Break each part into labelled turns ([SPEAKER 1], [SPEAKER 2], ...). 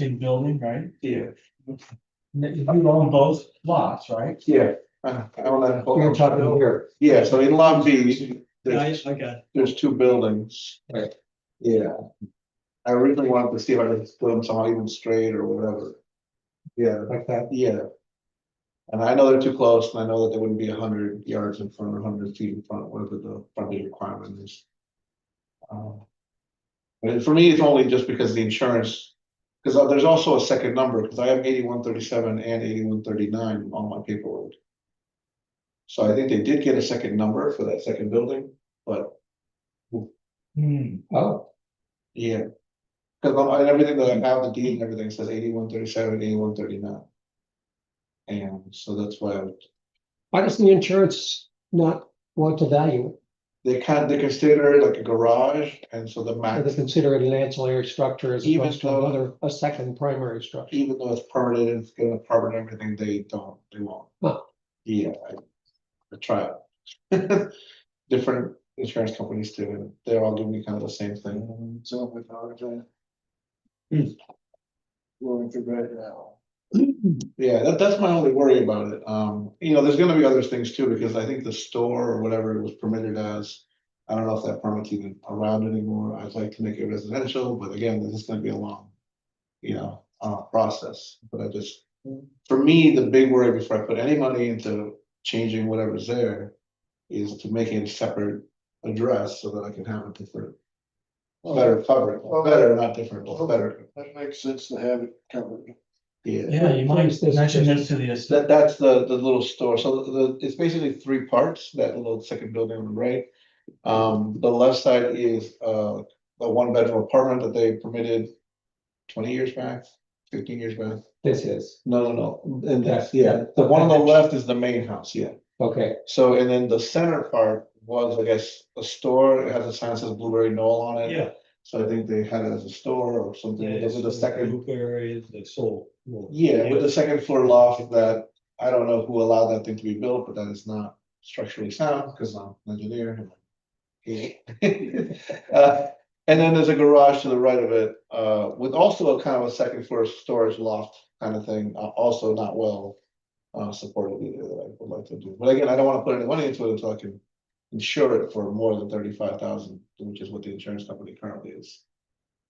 [SPEAKER 1] big building, right?
[SPEAKER 2] Yeah,
[SPEAKER 1] And You own both lots, right?
[SPEAKER 2] yeah. uh, I don't know.
[SPEAKER 3] We're talking here.
[SPEAKER 2] Yeah, so in Long Beach, there's,
[SPEAKER 1] okay.
[SPEAKER 2] there's two buildings.
[SPEAKER 3] Right.
[SPEAKER 2] Yeah. I originally wanted to see if I could split them somehow even straight or whatever. Yeah,
[SPEAKER 3] Like that,
[SPEAKER 2] yeah. And I know they're too close and I know that they wouldn't be hundred yards in front or hundred feet in front, whatever the frontage requirement is. Um, But for me, it's only just because the insurance, because there's also a second number, because I have eighty-one thirty-seven and eighty-one thirty-nine on my paperwork. So I think they did get a second number for that second building, but
[SPEAKER 1] Hmm,
[SPEAKER 3] oh,
[SPEAKER 2] yeah. Because on everything that I have, the deed and everything says eighty-one thirty-seven, eighty-one thirty-nine. And so that's why I
[SPEAKER 3] why doesn't the insurance not want to value
[SPEAKER 2] They can, they consider it like a garage, and so the
[SPEAKER 3] it, or they
[SPEAKER 2] max,
[SPEAKER 3] consider it an ancillary structure as
[SPEAKER 2] Even
[SPEAKER 3] opposed to
[SPEAKER 2] though-
[SPEAKER 3] another, a second primary structure?
[SPEAKER 2] even though it's permitted, it's gonna permit everything, they don't, they won't.
[SPEAKER 3] Wow.
[SPEAKER 2] Yeah, I, I try. it. Different insurance companies do, and they're all doing kind of the same thing. Hmm. So I apologize. Going through right now. Yeah, that, that's my only worry about it. Um, you know, there's gonna be other things too, because I think the store or whatever it was permitted as. I don't know if that permit's even around anymore. I'd like to make it residential, but again, this is gonna be a long. You know, uh, process, but I just, for me, the big worry before I put any money into changing whatever's there. Is to make it a separate address so that I can have a different, better coverage,
[SPEAKER 4] Well,
[SPEAKER 2] better, not different,
[SPEAKER 4] well,
[SPEAKER 2] better,
[SPEAKER 4] That makes sense to have it covered.
[SPEAKER 2] yeah.
[SPEAKER 1] yeah, you might
[SPEAKER 3] Place this-
[SPEAKER 1] mention this to the estate.
[SPEAKER 2] That, that's the, the little store, so the, it's basically three parts, that little second building on the right. Um, the left side is, uh, a one bedroom apartment that they permitted twenty years back, fifteen years back.
[SPEAKER 3] This is,
[SPEAKER 2] No, no, no, and that's,
[SPEAKER 3] That's-
[SPEAKER 2] yeah,
[SPEAKER 3] that-
[SPEAKER 2] the one on the
[SPEAKER 3] that-
[SPEAKER 2] left is the main house, yeah.
[SPEAKER 3] okay,
[SPEAKER 2] So, and then the center part was, I guess, a store, it has a sign that says Blueberry Knoll on it.
[SPEAKER 1] Yeah.
[SPEAKER 2] So I think they had it as a store or something, those are the second
[SPEAKER 1] Areas that sold. well,
[SPEAKER 2] yeah, with the second floor loft that, I don't know who allowed that thing to be built, but that is not structurally sound, because I'm an engineer. and I'm- Uh, And then there's a garage to the right of it, uh, with also a kind of a second floor storage loft kind of thing, uh, also not well. Uh, supported either that I would like to do, but again, I don't want to put any money into it until I can insure it for more than thirty-five thousand, which is what the insurance company currently is.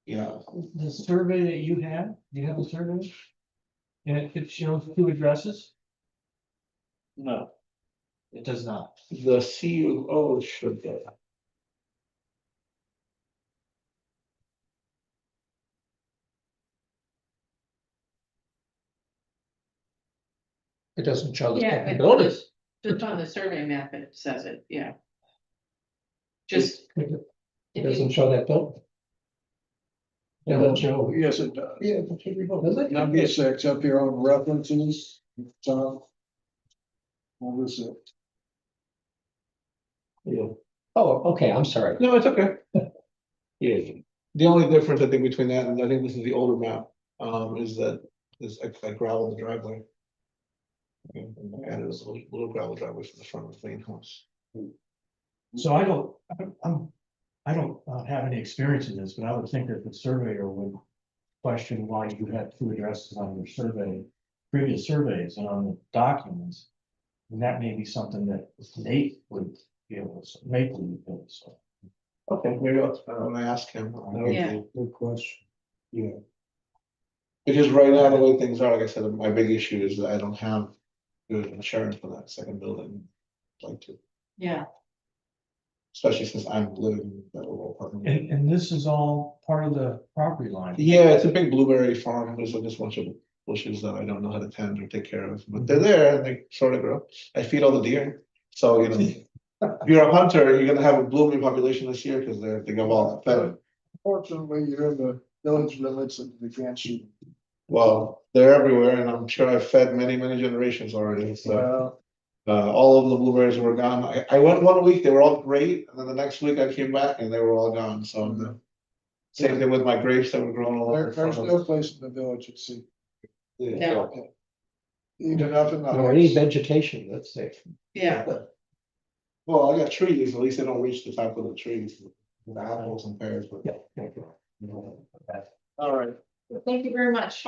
[SPEAKER 2] You know,
[SPEAKER 1] The survey that you have, do you have a survey? And it- it shows two addresses?
[SPEAKER 4] No.
[SPEAKER 1] It does not.
[SPEAKER 2] the CUO should get.
[SPEAKER 3] it doesn't show the
[SPEAKER 5] Yeah,
[SPEAKER 3] second
[SPEAKER 5] but
[SPEAKER 3] building.
[SPEAKER 5] just, just on the survey map, it says it, yeah. Just.
[SPEAKER 3] It
[SPEAKER 5] if you-
[SPEAKER 3] doesn't show that building. It doesn't show,
[SPEAKER 4] Yes, it does.
[SPEAKER 3] yeah, but should we vote? does it?
[SPEAKER 4] Number six, up here on references, top. What is it?
[SPEAKER 3] Oh, okay, I'm sorry,
[SPEAKER 2] No, it's okay. Yeah. The only difference I think between that and I think this is the older map, um, is that is I I gravel the driveway. And I added this little little gravel driveway for the front of the main house.
[SPEAKER 1] So I don't, I don't- I'm, I don't uh, have any experience in this, but I would think that the surveyor would question why you had two addresses on your survey, previous surveys and on the documents. And that may be something that Nate would be able to, Nate would be able to. solve.
[SPEAKER 2] Okay. Maybe I'll, uh, when I ask him. I'll-
[SPEAKER 5] Yeah.
[SPEAKER 4] Good question.
[SPEAKER 2] Yeah. Because right now, the way things are, like I said, my big issue is that I don't have good insurance for that second building. I'd Like to,
[SPEAKER 5] Yeah,
[SPEAKER 2] especially since I'm living in that little apartment.
[SPEAKER 1] And, and this is all part of the property line.
[SPEAKER 2] Yeah, it's a big blueberry farm, there's a just bunch of bushes that I don't know how to tend or take care of, but they're there and they sort of grow. I feed all the deer, so you know. If you're a hunter, you're gonna have a blueberry population this year, because they're, they go all fed,
[SPEAKER 4] Fortunately, you're in the village limits and you can't shoot.
[SPEAKER 2] well, they're everywhere, and I'm sure I've fed many, many generations already, so.
[SPEAKER 4] Well,
[SPEAKER 2] Uh, all of the blueberries were gone, I, I went one week, they were all great, and then the next week I came back and they were all gone, so. I'm the- Same thing with my grapes that were growing all
[SPEAKER 4] Mm-hmm. there,
[SPEAKER 2] over.
[SPEAKER 4] there's no place in the village at sea,
[SPEAKER 5] no,
[SPEAKER 4] even up in the.
[SPEAKER 3] or any
[SPEAKER 4] heights.
[SPEAKER 3] vegetation, let's say.
[SPEAKER 5] yeah,
[SPEAKER 2] Well, I got trees, at least they don't reach the top of the trees, with apples and pears, but.
[SPEAKER 3] Yeah.
[SPEAKER 2] All
[SPEAKER 4] All right,
[SPEAKER 5] Thank you very much.